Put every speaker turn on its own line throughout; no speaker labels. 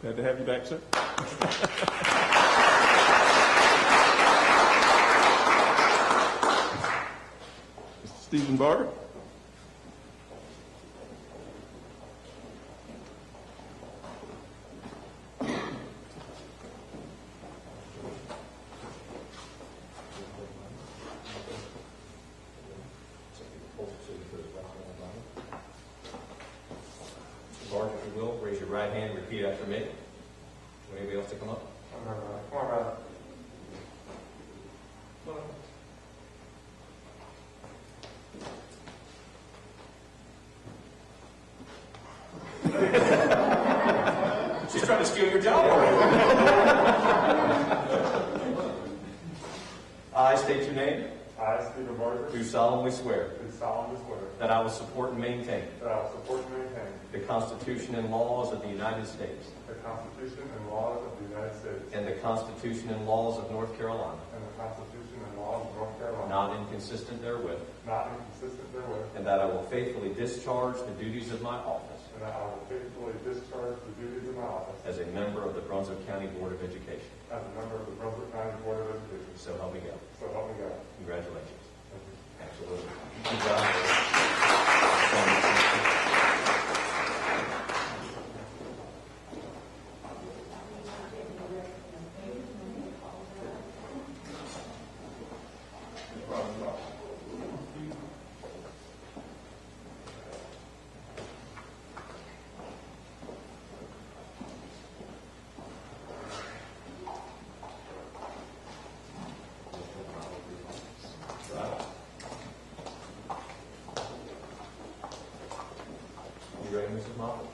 Glad to have you back, sir. Stephen Barber.
Lord, if you will, raise your right hand, and repeat after me. Do anybody else to come up?
Come on, brother.
She's trying to steal your job already. I state your name,
I, Stephen Barker,
do solemnly swear
do solemnly swear
that I will support and maintain
that I will support and maintain
the Constitution and laws of the United States
the Constitution and laws of the United States
and the Constitution and laws of North Carolina,
and the Constitution and laws of North Carolina,
not inconsistent therewith,
not inconsistent therewith,
and that I will faithfully discharge the duties of my office
and that I will faithfully discharge the duties of my office
as a member of the Brunswick County Board of Education.
as a member of the Brunswick County Board of Education.
So help me God.
So help me God.
Congratulations.
Thank you.
Absolutely. You ready, Mrs. Moffett?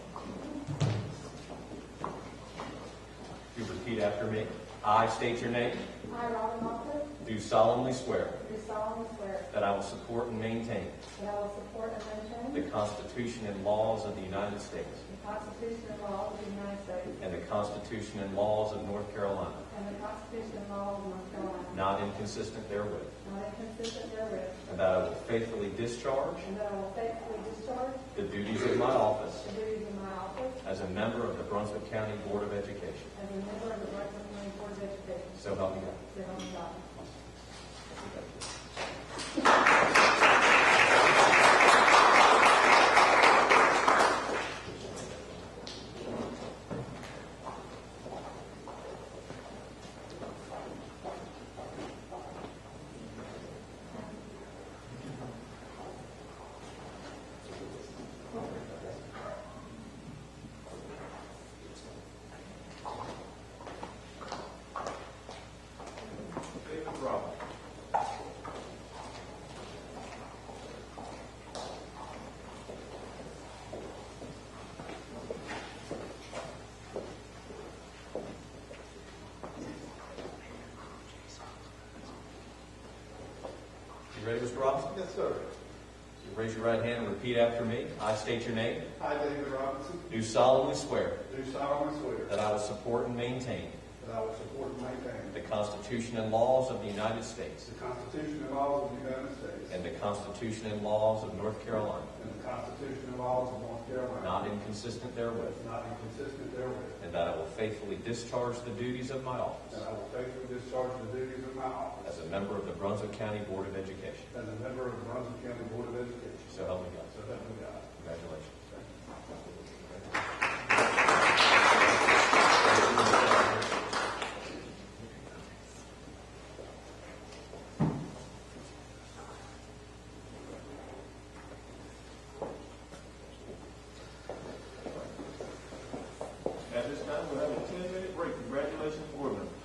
You repeat after me. I state your name.
I, Robin Moffett,
Do solemnly swear
do solemnly swear
that I will support and maintain
that I will support and
the
maintain
Constitution and laws of the United States
the Constitution and laws of the United States
and the Constitution and laws of North Carolina,
and the Constitution and laws of North Carolina,
not inconsistent therewith,
not inconsistent therewith,
and that I will faithfully discharge
and that I will faithfully discharge
the duties of my office
the duties of my office
as a member of the Brunswick County Board of Education.
as a member of the Brunswick County Board of Education.
So help me God.
So help me God.
David Robb.
You ready, Mr. Robinson?
Yes, sir.
You Raise your right hand and repeat after me. I state your name.
I, David Robinson,
Do solemnly swear
do solemnly swear
that I will support and maintain
that I will support and maintain
the Constitution and laws of the United States
the Constitution and laws of the United States
and the Constitution and laws of North Carolina,
and the Constitution and laws of North Carolina,
not inconsistent therewith,
not inconsistent therewith,
and that I will faithfully discharge the duties of my office
that I will faithfully discharge the duties of my office
as a member of the Brunswick County Board of Education.
as a member of the Brunswick County Board of Education.
So help me God.
So help me God.
Congratulations.
At this time, we'll have a 10-minute break. Congratulations, board members.